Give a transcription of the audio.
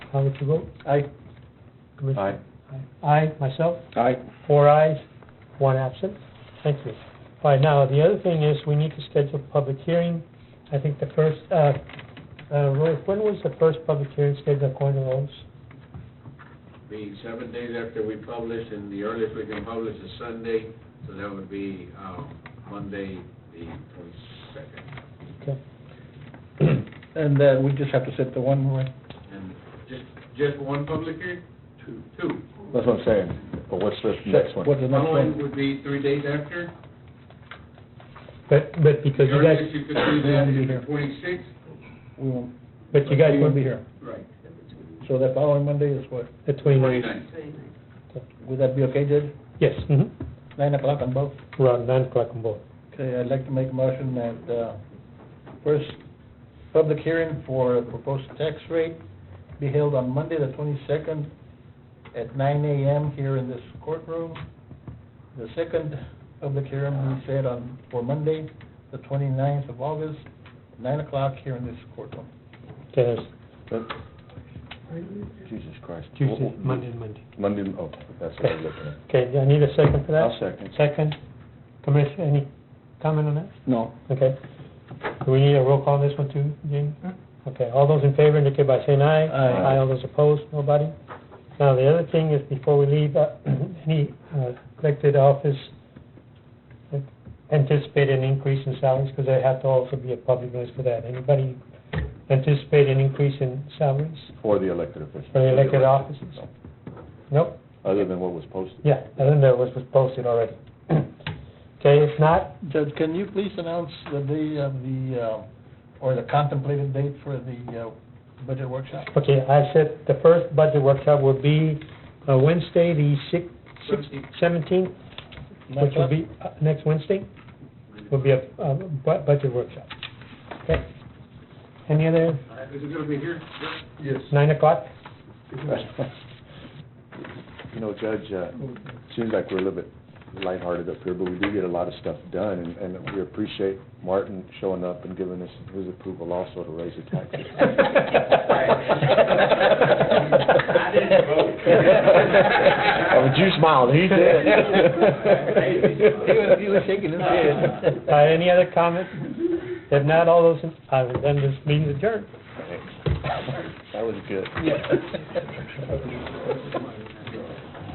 How would you vote? Aye. Commissioner? Aye. Aye, myself, Aye. four ayes, one absent. Thank you. All right, now, the other thing is, we need to schedule a public hearing. I think the first, uh, uh, Roy, when was the first public hearing scheduled according to those? Be seven days after we publish, and the earliest we can publish is Sunday, so that would be, um, Monday, the twenty-second. Okay. And then we just have to set the one more. And just, just one public hearing? Two. Two. That's what I'm saying, but what's this next one? What's the The next following one? would be three days after. But, but The because you guys, earliest you could do that is the twenty-sixth. We won't, but you guys we won't won't be be here. Right. So that following Monday is what? the twenty-ninth. Twenty-ninth. Would that be okay, Judge? Yes, mhm. Nine o'clock on both? around nine o'clock on both. Okay, I'd like to make a motion that, uh, first public hearing for proposed tax rate be held on Monday, the twenty-second, at nine AM here in this courtroom. The second public hearing we set on, for Monday, the 29th of August, nine o'clock here in this courtroom. Yes, Jesus Christ. Tuesday, Monday, and Monday. Monday, oh, that's what I'm looking at. Okay, I need a second for that? I'll second. Second. Commissioner, any comment on that? No. Okay. Do we need a roll call on this one too, Jim? Okay, all those in favor indicate by saying aye. Aye. Aye, all those opposed, nobody. Now, the other thing is, before we leave, uh, any uh, elected office anticipate an increase in salaries, because there have to also be a public notice for that. Anybody anticipate an increase in salaries For the elected officials. for the elected offices? No. Nope? Other than what was posted. Yeah, I don't know, it was posted already. Okay, if not, Judge, can you please announce the day of the, uh, or the contemplated date for the, uh, budget workshop? Okay, I said the first budget workshop will be uh, Wednesday, the six, six, seventeenth, Nine which will o'clock? be uh, next Wednesday, will be a, a bu- budget workshop. Okay? Any other, Is it gonna be here? Yes. nine o'clock? You know, Judge, uh, seems like we're a little bit lighthearted up here, but we do get a lot of stuff done, and, and we appreciate Martin showing up and giving us his approval also to raise the taxes. I didn't vote. Oh, but you smiled, he did. He was- he was shaking his head. Uh, any other comments? If not, all those, in- I will then this meeting adjourned. That was good. Yeah.